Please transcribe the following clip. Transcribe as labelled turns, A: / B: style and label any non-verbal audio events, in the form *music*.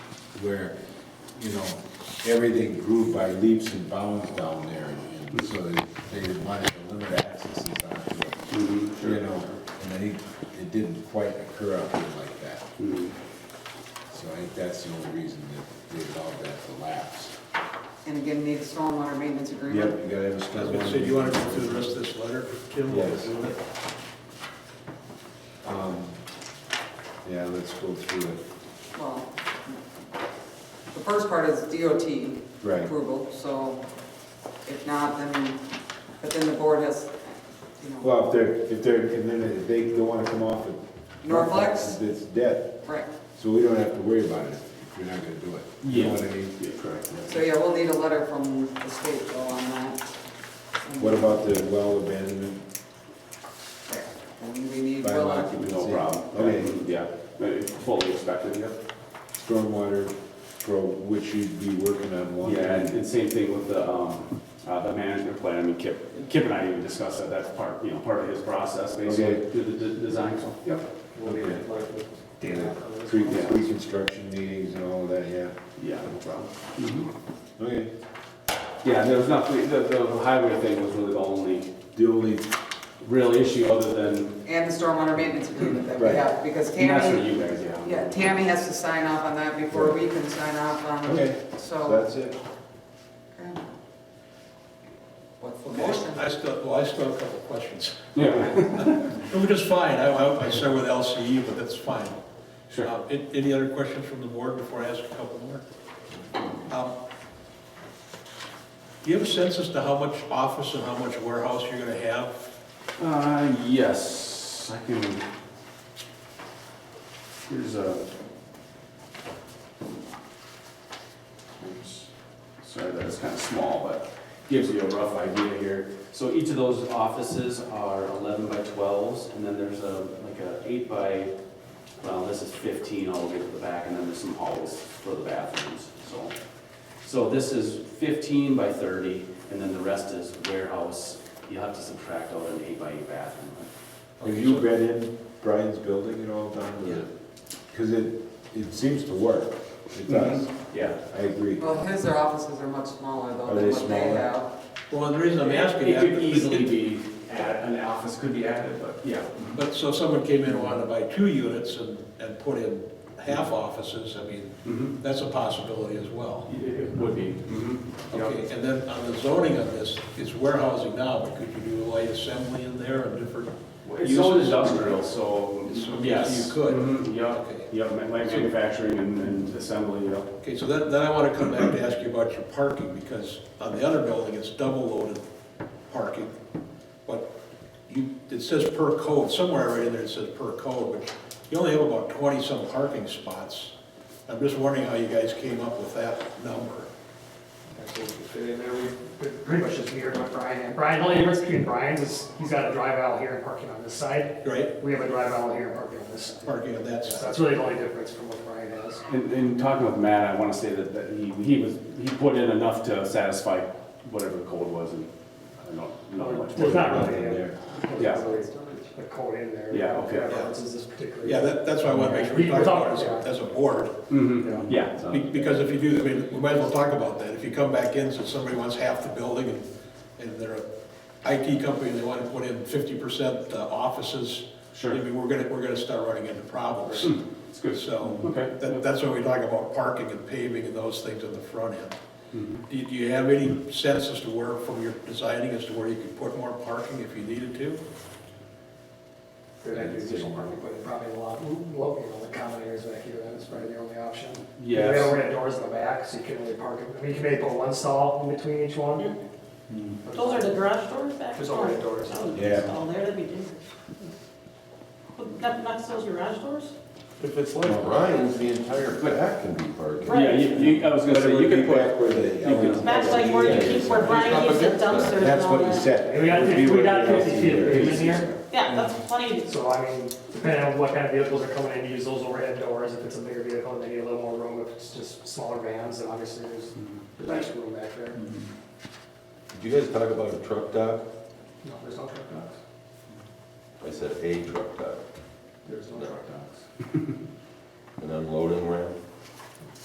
A: where, you know, everything grew by leaps and bounds down there, and so they they wanted to limit access onto it. You know, and I think it didn't quite occur out there like that. So I think that's the only reason that they allowed that to lapse.
B: And again, need a stormwater maintenance
A: Yep,
B: agreement.
A: you gotta have a
C: I was
A: special.
C: gonna say, do you wanna go through the rest of this letter, Kim? while we're
A: Yes.
C: doing it?
A: Um, Yeah, let's go through it.
B: Well, the first part is DOT
A: Right.
B: approval, so if not, then, but then the board has, you know,
A: Well, if they're, if they're, and then if they don't wanna come off it.
B: Norflex?
A: It's dead,
B: right.
A: so we don't have to worry about it if you're not gonna do it. You know what I mean?
D: correct.
B: So yeah, we'll need a letter from the state though on that.
A: What about the well abandonment
B: Right. And we need,
A: by
B: well,
A: occupancy?
D: No problem.
A: Okay,
D: Yeah, Uh, fully expected, yep.
A: stormwater, for which you'd be working on one.
D: Yeah, and and same thing with the, um, uh, the management plan, I mean, Kip, Kip and I even discussed that, that's part, you know, part of his process, basically,
A: Okay.
D: through the d- design, so, yep.
A: Yeah, Pre- Pre-construction meetings and all of that, yeah.
D: Yeah, no problem.
A: Mm-hmm. Okay.
D: Yeah, there was nothing, the, the highway thing was really the only
A: The only,
D: real issue other than,
B: and the stormwater maintenance agreement that we
A: Right.
B: have, because
D: and that's for
B: Tammy,
D: you guys, yeah.
B: yeah, Tammy has to sign off on that before we can sign off on it,
A: okay, so
B: so.
A: that's it.
B: okay. What's the motion?
C: Okay, I still, well, I still have a couple of questions.
D: Yeah, *laughs*
C: Which is fine, I, I I started with LCE, but that's fine.
D: sure.
C: Uh, an- Any other questions from the board before I ask a couple more? Um, Do you have a sense as to how much office and how much warehouse you're gonna have?
D: Uh, yes, I can. Here's a. Oops. Sorry, that is kind of small, but gives you a rough idea here. So each of those offices are eleven by twelves, and then there's a, like a eight by, well, this is fifteen all the way to the back, and then there's some halls for the bathrooms, so. So this is fifteen by thirty, and then the rest is warehouse. You'll have to subtract out an eight by eight bathroom.
A: Have you read in Brian's building at all, Don?
C: Yeah.
A: Because it, it seems to work. It does.
D: Yeah,
A: I agree.
B: Well, his offices are much smaller
A: Are
B: though
A: they
B: than what they
A: smaller?
B: have.
C: Well, the reason I'm asking
D: It
C: that.
D: could easily be, add- an office could be added, but yeah.
C: But, so someone came in and wanted to buy two units and, and put in half offices, I mean,
D: Mhm.
C: that's a possibility as well.
D: It it would be. Okay.
C: Mm-hmm. Okay, and then on the zoning of this, it's warehousing now, but could you do light assembly in there and different?
D: It's all industrial, so,
C: It's-
D: yes.
C: you could.
D: Mhm, Yep,
C: Okay,
D: yep, ma- like manufacturing and and assembly, yep.
C: Okay. so then, then I want to come back to ask you about your parking, because on the other building, it's double loaded parking. But you, it says per code, somewhere right in there it says per code, but you only have about twenty-some parking spots. I'm just wondering how you guys came up with that number.
E: Pretty much just mirrored what Brian had. Brian, the only difference between Brian's is he's got a drive aisle here and parking on this side.
C: Right,
E: We have a drive aisle here and parking on this side.
C: parking on that
E: So
C: side.
E: that's really the only difference from what Brian has.
D: And, and talking with Matt, I wanna say that, that he, he was, he put in enough to satisfy whatever the code was and I don't know, not much. more
E: There's not
D: than
E: really
D: that
E: a-
D: there. Yeah.
E: a code in there.
D: Yeah, okay.
E: References this particular.
C: Yeah, that, that's why I want to make sure we talk about it as, as a board,
D: Mhm, yeah. so-
C: Be- because if you do, I mean, we might as well talk about that. If you come back in, so somebody wants half the building and, and they're a IT company and they want to put in fifty percent uh, offices, I
D: Sure, Hmm.
C: mean, we're gonna, we're gonna start running into problems.
D: it's good.
C: So,
D: Okay.
C: that, that's why we talk about parking and paving and those things on the front end.
D: Mhm.
C: Do you, do you have any sense as to where, from your designing, as to where you could put more parking if you needed to?
E: Good additional parking, but probably a lot, well, you know, the common areas back here, that is probably the only option. We
D: Yes.
E: don't have doors in the back, so you can really park it. I mean, you can maybe put one stall in between each one. but-
F: Those are the garage doors back?
E: There's overhead doors.
A: Yeah.
F: Oh, there, that'd be dangerous. But that knocks those garage doors?
G: If it's like Ryan's, the entire back can be parking.
D: Yeah, you, you, I was gonna say, you could put,
A: put.
F: Max, like where you keep, where Brian keeps the dumpsters and all that?
A: That's what he said.
E: We got,
A: Would be
E: we got
A: where the
E: fifty feet of
A: LCD
E: pavement here.
F: Yeah, that's plenty.
E: So I mean, depending on what kind of vehicles are coming in, use those overhead doors, if it's a bigger vehicle, they need a little more room, if it's just smaller vans, then obviously there's less room back there.
G: Did you guys talk about a truck dock?
E: No, there's no truck docks.
G: I said a truck dock,
E: There's no truck docks.
G: an unloading ramp.